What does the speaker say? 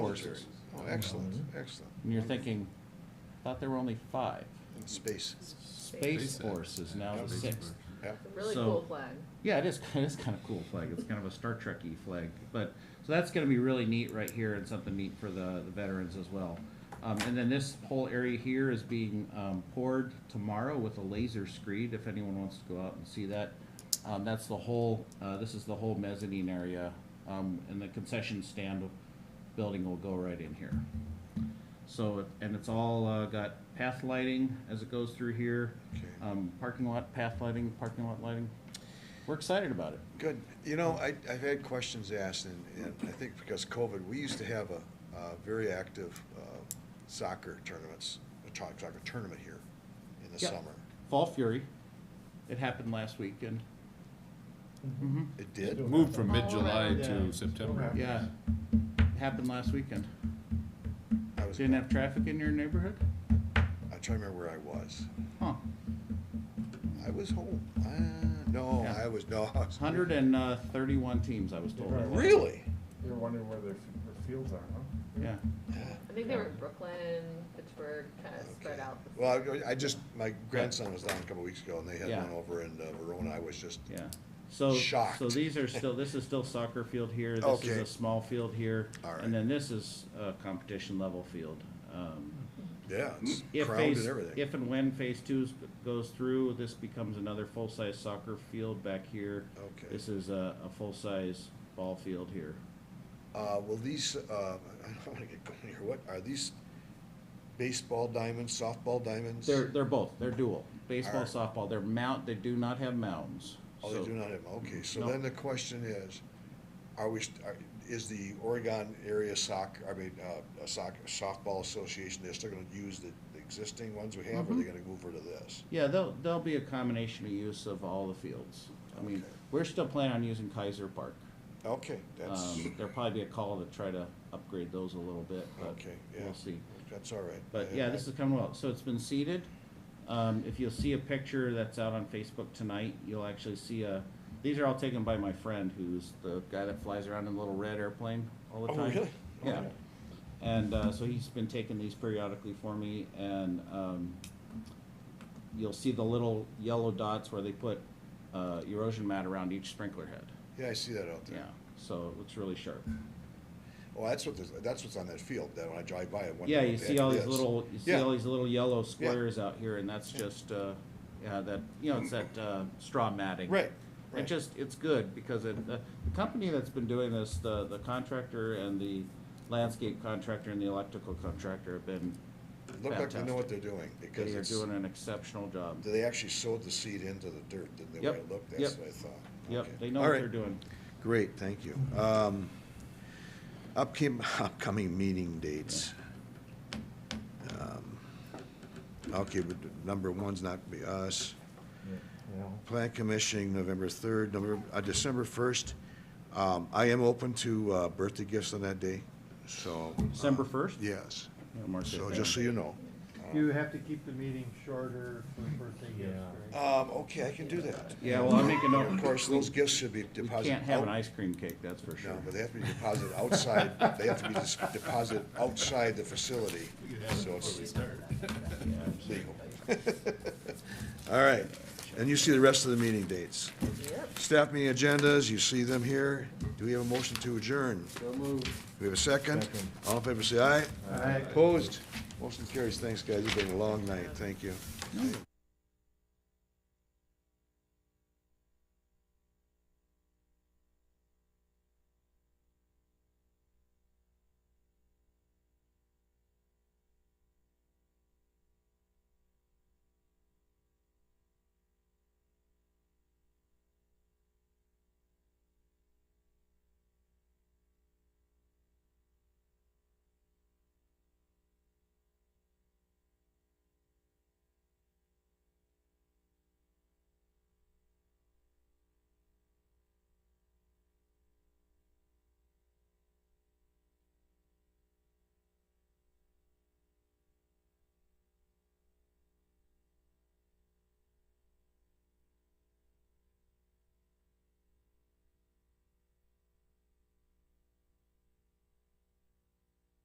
military. Oh, excellent, excellent. Mm-hmm. And you're thinking, thought there were only five. In space. Space Space. Force is now the sixth. Yeah. A Really So- cool flag. Yeah, it is, it is kind of cool flag. It's kind of a Star Trek-y flag. But, so that's gonna be really neat right here and something neat for the, the veterans as well. Um, and then this whole area here is being, um, poured tomorrow with a laser screed, if anyone wants to go out and see that. Um, that's the whole, uh, this is the whole mezzanine area, um, and the concession stand building will go right in here. So, and it's all, uh, got path lighting as it goes through here. Okay. Um, parking lot, path lighting, parking lot lighting. We're excited about it. Good. You know, I, I've had questions asked, and, and I think because COVID, we used to have a, uh very active uh, soccer tournaments, a to- soccer tournament here in the Yeah. summer. Fall Fury. It happened last weekend. Mm-hmm. It did? Moved from All mid-July around. to September. Yeah. It happened last weekend. I was, Didn't I'm have traffic in your neighborhood? trying to remember where I was. Huh. I was home. Uh, no, Yeah. I was, no. I was- 131 uh, teams, I was told. Right. Really? You're wondering where their, f- their fields are, huh? Yeah. I think they were in Brooklyn, Pittsburgh, kind of spread Okay. out. Well, I- I just, my grandson was down a couple weeks ago, and they had Yeah. one over in uh, Verona. I was just, Yeah. So, Shocked. so these are still, this is still soccer field here. This is Okay. a small field here. All right. And then this is a competition level field. Um, yeah, it's If crowded Mm-hmm. phase- and everything. If and when phase two is- goes through, this becomes another full-size soccer field back here. Okay. This is a, a full-size ball field here. Uh, will these, uh, I don't wanna get going here, what, are these baseball diamonds, softball diamonds? They're, they're both, they're dual, baseball, Alright. softball, they're mount, they do not have mounds. Oh, they So- do not have, okay, so No. then the question is, are we, st- are- is the Oregon Area Soc, I mean, uh, Soc, Softball Association, they're still gonna use the the existing ones we have, or are Mm-hmm. they gonna move over to this? Yeah, there'll, there'll be a combination of use of all the fields. I mean, Okay. we're still planning on using Kaiser Park. Okay, that's, Um, there'll probably be a call to try to upgrade those a little bit, but okay, yeah. we'll see. That's all right. But yeah, this is Commonwealth. So it's been seeded. Um, if you'll see a picture that's out on Facebook tonight, you'll actually see a. These are all taken by my friend, who's the guy that flies around in a little red airplane all the Oh, time. really? Yeah. And uh, so he's been taking these periodically for me, and um, you'll see the little yellow dots where they put uh, erosion mat around each sprinkler head. Yeah, I see that out Yeah. there. So it looks really sharp. Well, that's what, this- that's what's on that field, that when I drive by, I wonder Yeah, what you the see heck all it these is. little, you see Yeah. all these little yellow squares out here, and that's just, uh, yeah, that, you know, it's that, uh, straw matting. Right, It right. just, it's good, because it, the, the company that's been doing this, the, the contractor and the landscape contractor and the electrical contractor have been Look like they know what fantastic. they're doing, because They are it's. doing an exceptional job. They actually sowed the seed into the dirt, didn't they, Yep, where it looked, yep. that's what I thought. Yep, Okay. they know All what right, Uh, they're doing. Great, thank you. Um, upcom- upcoming meeting dates. Um, Okay, but number one's not be us. Yeah. Plan Commission, November third, November, uh, December first. Um, I am open to, uh, birthday gifts on that day, so. uh, December first? Yes, Yeah, mark that so down. just so you know. You have to keep the meeting shorter for birthday gifts, Yeah. right? Um, okay, I can do that. Yeah, well, I'll make a note. Of course, We- those gifts should be We deposited. can't have an out- ice cream cake, that's for sure. Oh. No, but they have to be deposited outside, they have to be dis- deposited outside the facility, so it's legal. All right, and you see the rest of the meeting dates. Yep. Staff meeting agendas, you see them here. Do we have a motion to adjourn? So moved. We have a second? Second. All in favor, say aye. Aye. Opposed? Motion carries. Thanks, guys. It's been a long night. Thank you.